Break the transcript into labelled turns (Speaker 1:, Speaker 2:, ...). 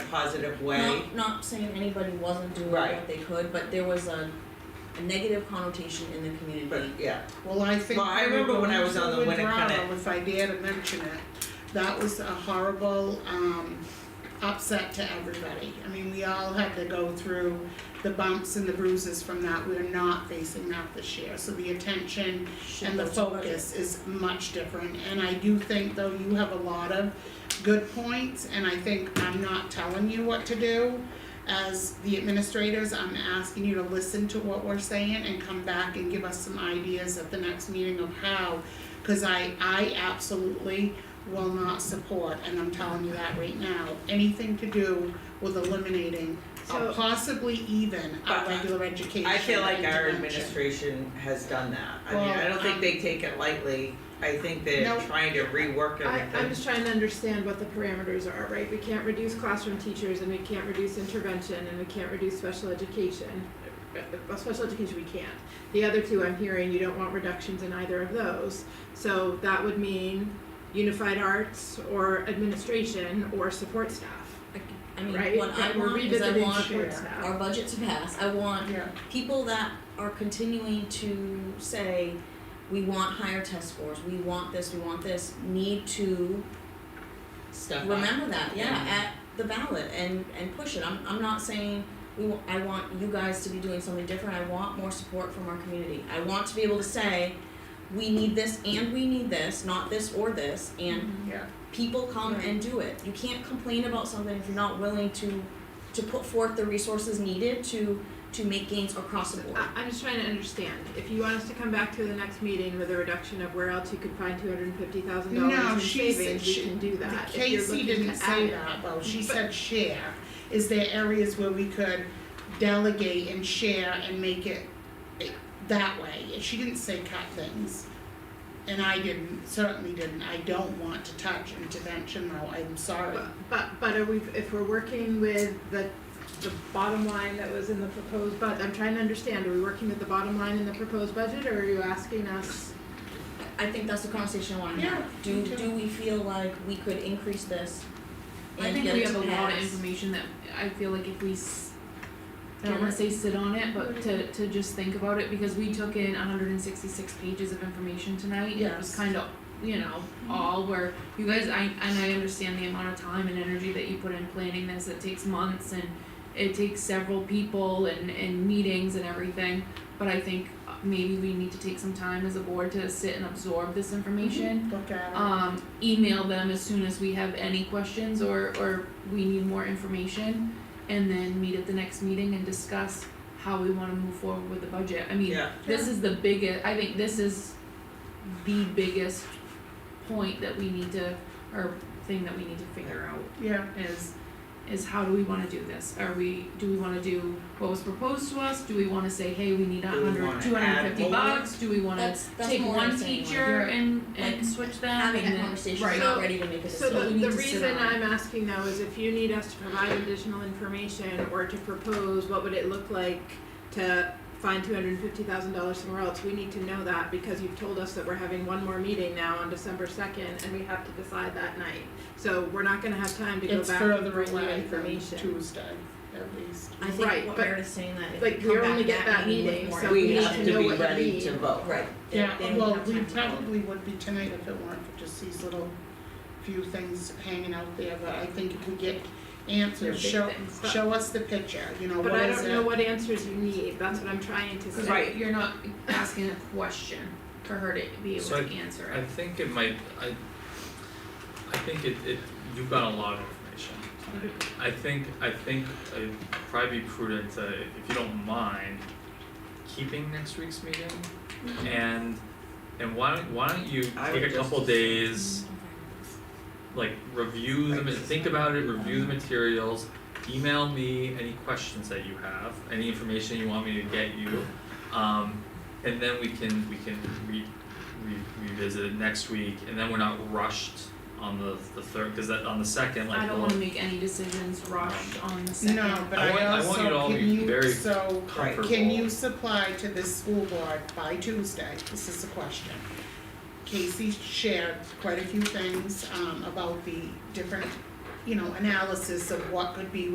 Speaker 1: positive way.
Speaker 2: Not, not saying anybody wasn't doing
Speaker 1: Right.
Speaker 2: what they could, but there was a, a negative connotation in the community.
Speaker 1: But yeah,
Speaker 3: Well, I think.
Speaker 1: Well, I remember when I was on the
Speaker 3: Hollywood
Speaker 1: Winnicott-
Speaker 3: drama, If I dare to mention it, that was a horrible, um, upset to everybody. I mean, we all had to go through the bumps and the bruises from that. We're not facing that this year, so the attention
Speaker 2: Should
Speaker 3: and the
Speaker 2: go to budget.
Speaker 3: focus is much different. And I do think though you have a lot of good points and I think I'm not telling you what to do. As the administrators, I'm asking you to listen to what we're saying and come back and give us some ideas at the next meeting of how. Cause I, I absolutely will not support, and I'm telling you that right now, anything to do with eliminating or
Speaker 4: So-
Speaker 3: possibly even
Speaker 1: But
Speaker 3: a
Speaker 1: I-
Speaker 3: regular education
Speaker 1: I feel like our
Speaker 3: intervention.
Speaker 1: administration has done that. I mean,
Speaker 3: Well,
Speaker 1: I don't think
Speaker 3: um,
Speaker 1: they take it lightly. I think they're
Speaker 3: No.
Speaker 1: trying to rework everything.
Speaker 4: I, I'm just trying to understand what the parameters are, right? We can't reduce classroom teachers and we can't reduce intervention and we can't reduce special education. Uh, Well, special education we can't. The other two I'm hearing, you don't want reductions in either of those. So that would mean unified arts or administration or support staff,
Speaker 2: I- I mean,
Speaker 4: right?
Speaker 2: what I
Speaker 4: That we're
Speaker 2: want is I
Speaker 4: revisiting
Speaker 2: want
Speaker 4: support
Speaker 2: our
Speaker 4: staff.
Speaker 2: budget to pass, I want
Speaker 3: Yeah.
Speaker 2: people that are continuing to say, we want higher test scores, we want this, we want this, need to
Speaker 1: Stuff up.
Speaker 2: remember that, yeah,
Speaker 1: Yeah.
Speaker 2: at the ballot and and push it. I'm I'm not saying we wa- I want you guys to be doing something different. I want more support from our community. I want to be able to say, we need this and we need this, not this or this, and
Speaker 3: Yeah.
Speaker 2: people come and do it. You can't complain about something if you're not willing to to put forth the resources needed to to make gains across the board.
Speaker 4: I, I'm just trying to understand, if you want us to come back to the next meeting with a reduction of where else you could find two hundred and fifty thousand
Speaker 3: No,
Speaker 4: dollars in
Speaker 3: she said
Speaker 4: savings, we
Speaker 3: she-
Speaker 4: can do
Speaker 3: The
Speaker 4: that. If you're
Speaker 3: Casey
Speaker 4: looking
Speaker 3: didn't
Speaker 4: to
Speaker 3: say
Speaker 4: add-
Speaker 3: that though, she
Speaker 4: But-
Speaker 3: said share, is there areas where we could delegate and share and make it eh, that way, she didn't say cut things. And I didn't, certainly didn't, I don't want to touch intervention though, I'm sorry.
Speaker 4: But, but, but are we, if we're working with the, the bottom line that was in the proposed bud, I'm trying to understand, are we working with the bottom line in the proposed budget, or are you asking us?
Speaker 2: I think that's the conversation I wanna
Speaker 3: Yeah,
Speaker 2: have. Do
Speaker 3: me too.
Speaker 2: do we feel like we could increase this
Speaker 5: I
Speaker 2: and
Speaker 5: think
Speaker 2: get
Speaker 5: we
Speaker 2: it
Speaker 5: have
Speaker 2: to
Speaker 5: a lot of
Speaker 2: pass?
Speaker 5: information that I feel like if we s-
Speaker 3: Yeah,
Speaker 5: can't
Speaker 3: right.
Speaker 5: say sit on it, but to to just think about it because we took in hundred and sixty six pages of information tonight. and It was
Speaker 2: Yes.
Speaker 5: kind of you know, all where you guys I and I understand the amount of time and energy that you put in planning this. It takes months and it takes several people and, and meetings and everything. But I think uh, maybe we need to take some time as a board to sit and absorb this information
Speaker 3: Look at it.
Speaker 4: Uh,
Speaker 5: um, email them as soon as we have any questions or, or we need more information. And then meet at the next meeting and discuss how we wanna move forward with the budget. I mean,
Speaker 1: Yeah.
Speaker 5: this is the biggest, I think this is the biggest point that we need to, or thing that we need to figure out
Speaker 3: Yeah,
Speaker 5: is is how do we wanna do this? Are we, do we wanna do what was proposed to us? Do we wanna say, hey, we need a
Speaker 1: Do we wanna
Speaker 5: hundred, two hundred
Speaker 1: add
Speaker 5: and fifty
Speaker 1: more?
Speaker 5: bucks? Do we wanna
Speaker 2: That's that's
Speaker 5: take
Speaker 2: more what I'm
Speaker 5: one
Speaker 2: saying, like,
Speaker 5: teacher and
Speaker 2: Like,
Speaker 5: and switch them and
Speaker 2: having that
Speaker 5: then-
Speaker 2: conversation,
Speaker 5: right.
Speaker 2: not ready to make a
Speaker 4: So
Speaker 2: decision.
Speaker 5: what we
Speaker 4: the,
Speaker 5: need
Speaker 4: the
Speaker 5: to sit
Speaker 4: reason
Speaker 5: on.
Speaker 4: I'm asking though is if you need us to provide additional information or to propose, what would it look like to find two hundred and fifty thousand dollars somewhere else, we need to know that because you've told us that we're having one more meeting now on December second and we have to decide that night. So we're not gonna have time to go
Speaker 3: it's
Speaker 4: back and
Speaker 3: further
Speaker 4: bring you
Speaker 3: away from
Speaker 4: information.
Speaker 3: Tuesday, at least.
Speaker 2: I think
Speaker 4: Right,
Speaker 2: what
Speaker 4: but-
Speaker 2: Meredith's saying that if
Speaker 4: like,
Speaker 2: we
Speaker 4: we
Speaker 2: come
Speaker 4: only
Speaker 2: back
Speaker 4: get
Speaker 2: to that
Speaker 4: that
Speaker 2: meeting with
Speaker 4: meeting,
Speaker 2: more
Speaker 4: so
Speaker 1: We
Speaker 4: need
Speaker 2: information,
Speaker 1: have to
Speaker 4: to know
Speaker 1: be
Speaker 4: what you
Speaker 1: ready
Speaker 4: need.
Speaker 1: to vote.
Speaker 2: Right, they,
Speaker 3: Yeah,
Speaker 2: they don't
Speaker 3: well,
Speaker 2: have
Speaker 3: we
Speaker 2: time to vote.
Speaker 3: probably would be tonight if it weren't for just these little few things hanging out there, but I think if we get
Speaker 4: They're
Speaker 3: answers,
Speaker 4: big
Speaker 3: show,
Speaker 4: things, but-
Speaker 3: show us the picture, you know,
Speaker 4: But
Speaker 3: what
Speaker 4: I
Speaker 3: is
Speaker 4: don't know
Speaker 3: it?
Speaker 4: what answers you need, that's what I'm trying to say.
Speaker 5: Cause
Speaker 1: Right.
Speaker 5: you're not asking a question for her to be able
Speaker 6: So
Speaker 5: to answer
Speaker 6: I
Speaker 5: it.
Speaker 6: think it might, I, I think it, it, you've got a lot of information tonight. I think, I think it'd probably be prudent to, if you don't mind, keeping next week's meeting. And, and why don't, why don't you
Speaker 1: I
Speaker 6: take
Speaker 1: would
Speaker 6: a couple
Speaker 1: just-
Speaker 6: days, like review them, and think about it, review the materials. Email me any questions that you have, any information you want me to get you. Um, and then we can, we can re- re- revisit it next week, and then we're not rushed on the, the third, cause that, on the second, like,
Speaker 5: I don't
Speaker 6: we'll-
Speaker 5: wanna make any decisions rushed on the second.
Speaker 3: No, but
Speaker 6: I want-
Speaker 3: I
Speaker 6: I want you to
Speaker 3: also,
Speaker 6: all
Speaker 3: can
Speaker 6: be
Speaker 3: you,
Speaker 6: very
Speaker 3: so,
Speaker 1: Right.
Speaker 3: can you supply to this school board by Tuesday, this is the question. Casey shared quite a few things, um, about the different you know, analysis of what could be